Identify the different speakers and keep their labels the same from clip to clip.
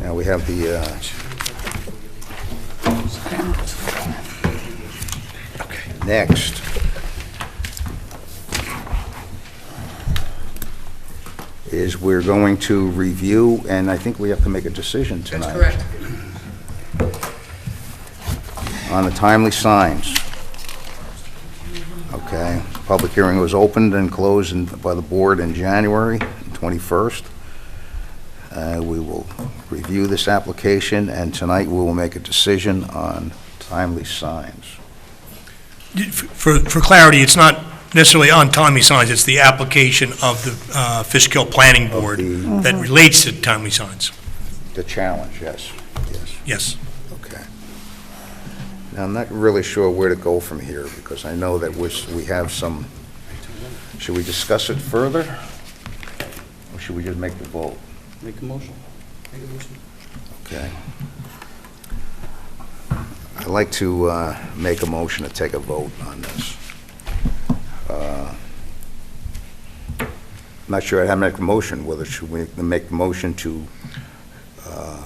Speaker 1: Now, we have the, uh, next. Is we're going to review, and I think we have to make a decision tonight.
Speaker 2: That's correct.
Speaker 1: on the timely signs. Okay, public hearing was opened and closed in- by the board in January 21st. Uh, We will review this application, and tonight we will make a decision on timely signs.
Speaker 3: For, for clarity, it's not necessarily on timely signs, it's the application of the uh, Fishkill Planning Board
Speaker 1: the-
Speaker 3: that relates to timely signs.
Speaker 1: The challenge, yes, yes,
Speaker 3: Yes.
Speaker 1: okay. Now, I'm not really sure where to go from here, because I know that we're, we have some, should we discuss it further? Or should we just make the vote?
Speaker 4: Make a motion.
Speaker 1: Okay. I'd like to uh, make a motion to take a vote on this. Uh, I'm Not sure how to make a motion, whether should we make the motion to, uh,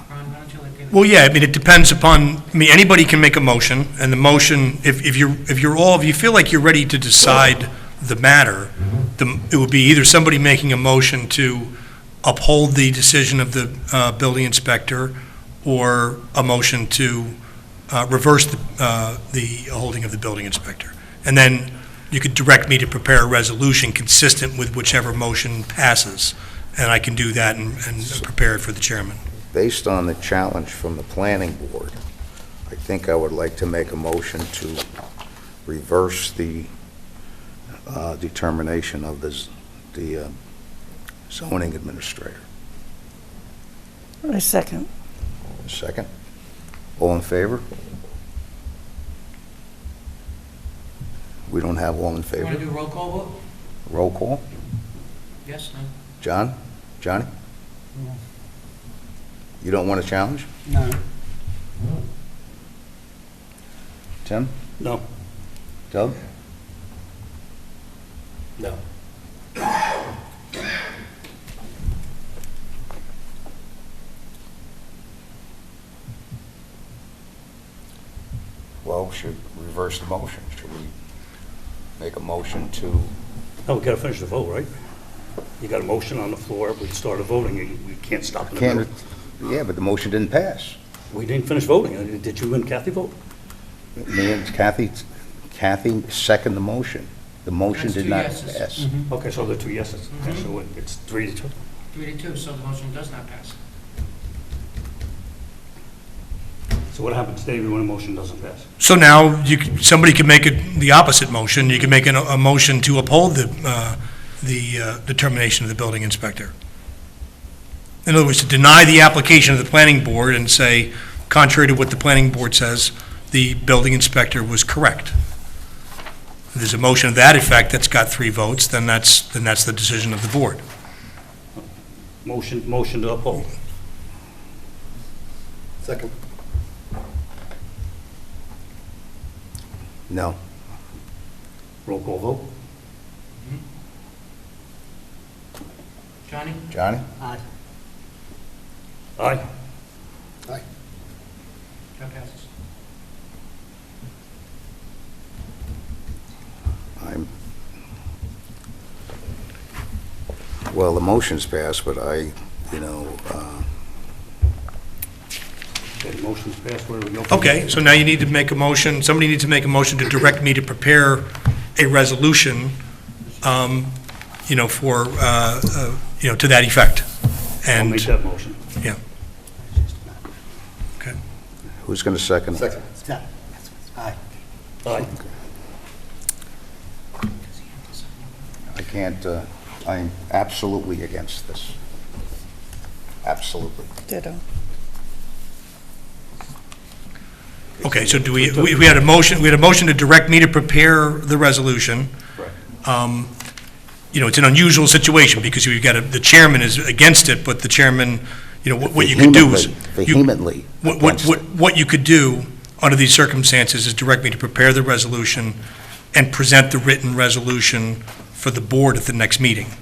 Speaker 3: Well, yeah, I mean, it depends upon, I mean, anybody can make a motion, and the motion, if, if you're, if you're all, if you feel like you're ready to decide the matter, the, it would be either somebody making a motion to uphold the decision of the, uh, building inspector, or a motion to, uh, reverse the, uh, the holding of the building inspector. And then you could direct me to prepare a resolution consistent with whichever motion passes, and I can do that and, and prepare it for the chairman.
Speaker 1: based on the challenge from the planning board, I think I would like to make a motion to reverse the uh, determination of this, the uh, zoning administrator.
Speaker 5: I second.
Speaker 1: Second. All in favor? We don't have all in
Speaker 2: You want to
Speaker 1: favor.
Speaker 2: do roll call vote?
Speaker 1: Roll call.
Speaker 2: Yes, no?
Speaker 1: John? Johnny? You don't want a challenge?
Speaker 4: No.
Speaker 1: Tim?
Speaker 4: No.
Speaker 1: Doug?
Speaker 4: No.
Speaker 1: Well, we should reverse the motion. Should we make a motion to,
Speaker 4: No, we gotta finish the vote, right? You got a motion on the floor, we started voting, you- we can't stop in the
Speaker 1: can't,
Speaker 4: middle.
Speaker 1: yeah, but the motion didn't pass.
Speaker 4: We didn't finish voting, Uh, did you and Kathy vote?
Speaker 1: Me and Kathy, Kathy seconded the motion. The motion
Speaker 2: That's
Speaker 1: did
Speaker 2: two
Speaker 1: not
Speaker 2: yeses.
Speaker 1: pass.
Speaker 3: Mm-hmm.
Speaker 4: Okay, so the two yeses, Okay, so it- it's three to two.
Speaker 2: Three to two, so the motion does not pass.
Speaker 4: So what happens, David, when a motion doesn't pass?
Speaker 3: So now, you, c- somebody could make it the opposite motion, you could make an- a motion to uphold the, uh, the uh, determination of the building inspector. In other words, to deny the application of the planning board and say, contrary to what the planning board says, the building inspector was correct. If there's a motion of that effect that's got three votes, then that's, then that's the decision of the board.
Speaker 4: Motion, motion to uphold.
Speaker 1: Second.
Speaker 2: Mm-hmm.
Speaker 1: No.
Speaker 4: Roll call vote?
Speaker 2: Johnny?
Speaker 1: Johnny?
Speaker 4: Aye.
Speaker 2: That passes.
Speaker 1: I'm, well, the motion's passed, but I, you know, uh,
Speaker 4: Okay, motion's passed, where do we go? from
Speaker 3: Okay,
Speaker 4: here?
Speaker 3: so now you need to make a motion, somebody needs to make a motion to direct me to prepare a resolution, um, you know, for, uh, uh, you know, to that effect.
Speaker 4: I'll
Speaker 3: And,
Speaker 4: make that motion.
Speaker 3: yeah,
Speaker 1: who's going to second it? Second.
Speaker 4: Aye.
Speaker 1: I can't, uh, I'm absolutely against this. Absolutely.
Speaker 5: Ditto.
Speaker 3: okay, so do we, we we had a motion, we had a motion to direct me to prepare the resolution.
Speaker 4: Correct.
Speaker 3: Um, You know, it's an unusual situation, because you've got, a- the chairman is against it, but the chairman, you know, what what you could do is.
Speaker 1: Vehemently,
Speaker 3: you-
Speaker 1: Vehemently
Speaker 3: What, what,
Speaker 1: against
Speaker 3: what
Speaker 1: it.
Speaker 3: what you could do under these circumstances is direct me to prepare the resolution and present the written resolution for the board at the next meeting.